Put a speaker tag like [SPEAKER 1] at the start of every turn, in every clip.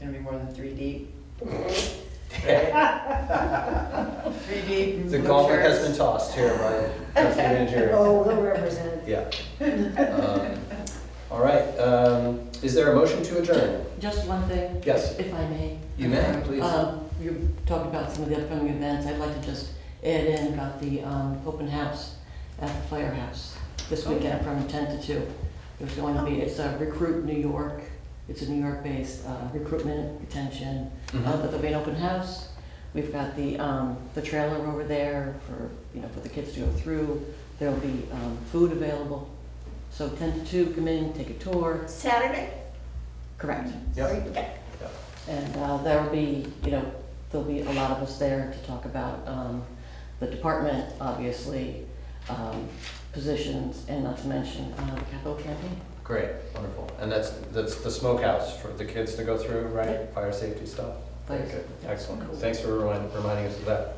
[SPEAKER 1] gonna be more than three deep.
[SPEAKER 2] The
[SPEAKER 1] Three deep.
[SPEAKER 2] gauntlet has been tossed here by trustee Mangieri.
[SPEAKER 3] Oh, they'll represent it.
[SPEAKER 2] Yeah. Um, All right, um, is there a motion to adjourn?
[SPEAKER 4] Just one thing,
[SPEAKER 2] Yes,
[SPEAKER 4] if I may.
[SPEAKER 2] you may, please.
[SPEAKER 4] Um, You talked about some of the upcoming events. I'd like to just add in about the um, open house at the firehouse this weekend from 10 to 2. There's going to be, it's a Recruit New York. It's a New York-based uh, recruitment, retention. Uh,
[SPEAKER 2] Mhm.
[SPEAKER 4] But there'll be an open house. We've got the, um, the trailer over there for, you know, for the kids to go through. There'll be um, food available. So 10 to 2, come in, take a tour.
[SPEAKER 3] Saturday?
[SPEAKER 4] Correct.
[SPEAKER 2] Yep.
[SPEAKER 3] Okay.
[SPEAKER 4] And uh, there'll be, you know, there'll be a lot of us there to talk about um, the department, obviously, um, positions, and not to mention uh, the capital campaign.
[SPEAKER 2] Great, wonderful. And that's, that's the smokehouse for the kids to go through, right? Fire safety stuff? Very
[SPEAKER 4] Thanks.
[SPEAKER 2] good. Excellent. Thanks for remind- reminding us of that.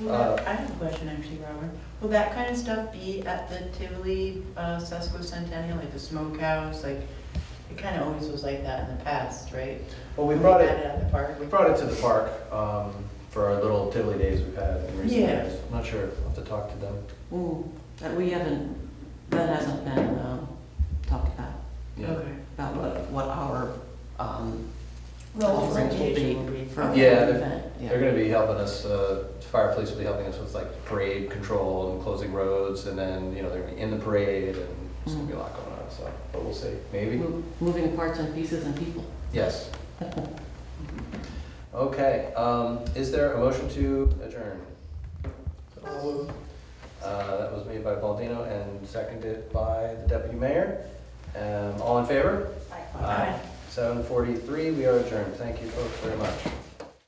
[SPEAKER 1] Will that- I have a question actually, Robert. Will that kind of stuff be at the Tivoli uh, Sesquicentennial, like the smokehouse, like, it kind of always was like that in the past, right?
[SPEAKER 2] Well, we brought
[SPEAKER 1] had
[SPEAKER 2] it,
[SPEAKER 1] at the park.
[SPEAKER 2] we brought it to the park um, for our little Tivoli days we've had in recent
[SPEAKER 1] Yeah.
[SPEAKER 2] years. I'm not sure, I'll have to talk to them.
[SPEAKER 4] Ooh, That we haven't, that hasn't been um, talked about,
[SPEAKER 2] Yeah.
[SPEAKER 1] Okay.
[SPEAKER 4] about what, what our um,
[SPEAKER 3] Roles
[SPEAKER 1] and
[SPEAKER 4] offerings will
[SPEAKER 1] engagement will
[SPEAKER 4] be
[SPEAKER 1] be.
[SPEAKER 4] for the
[SPEAKER 2] Yeah, they're-
[SPEAKER 4] event. Yeah.
[SPEAKER 2] They're gonna be helping us, uh, fire police will be helping us with like parade control and closing roads, and then, you know, they're gonna be in the parade, and there's gonna be a lot going on, so, but we'll see, maybe,
[SPEAKER 4] Mo- Moving parts and pieces and people.
[SPEAKER 2] yes. Okay, um, is there a motion to adjourn? Uh, that was made by Baldino and seconded by the deputy mayor, um, all in favor?
[SPEAKER 3] Aye.
[SPEAKER 2] Seven forty-three, we are adjourned, thank you folks very much.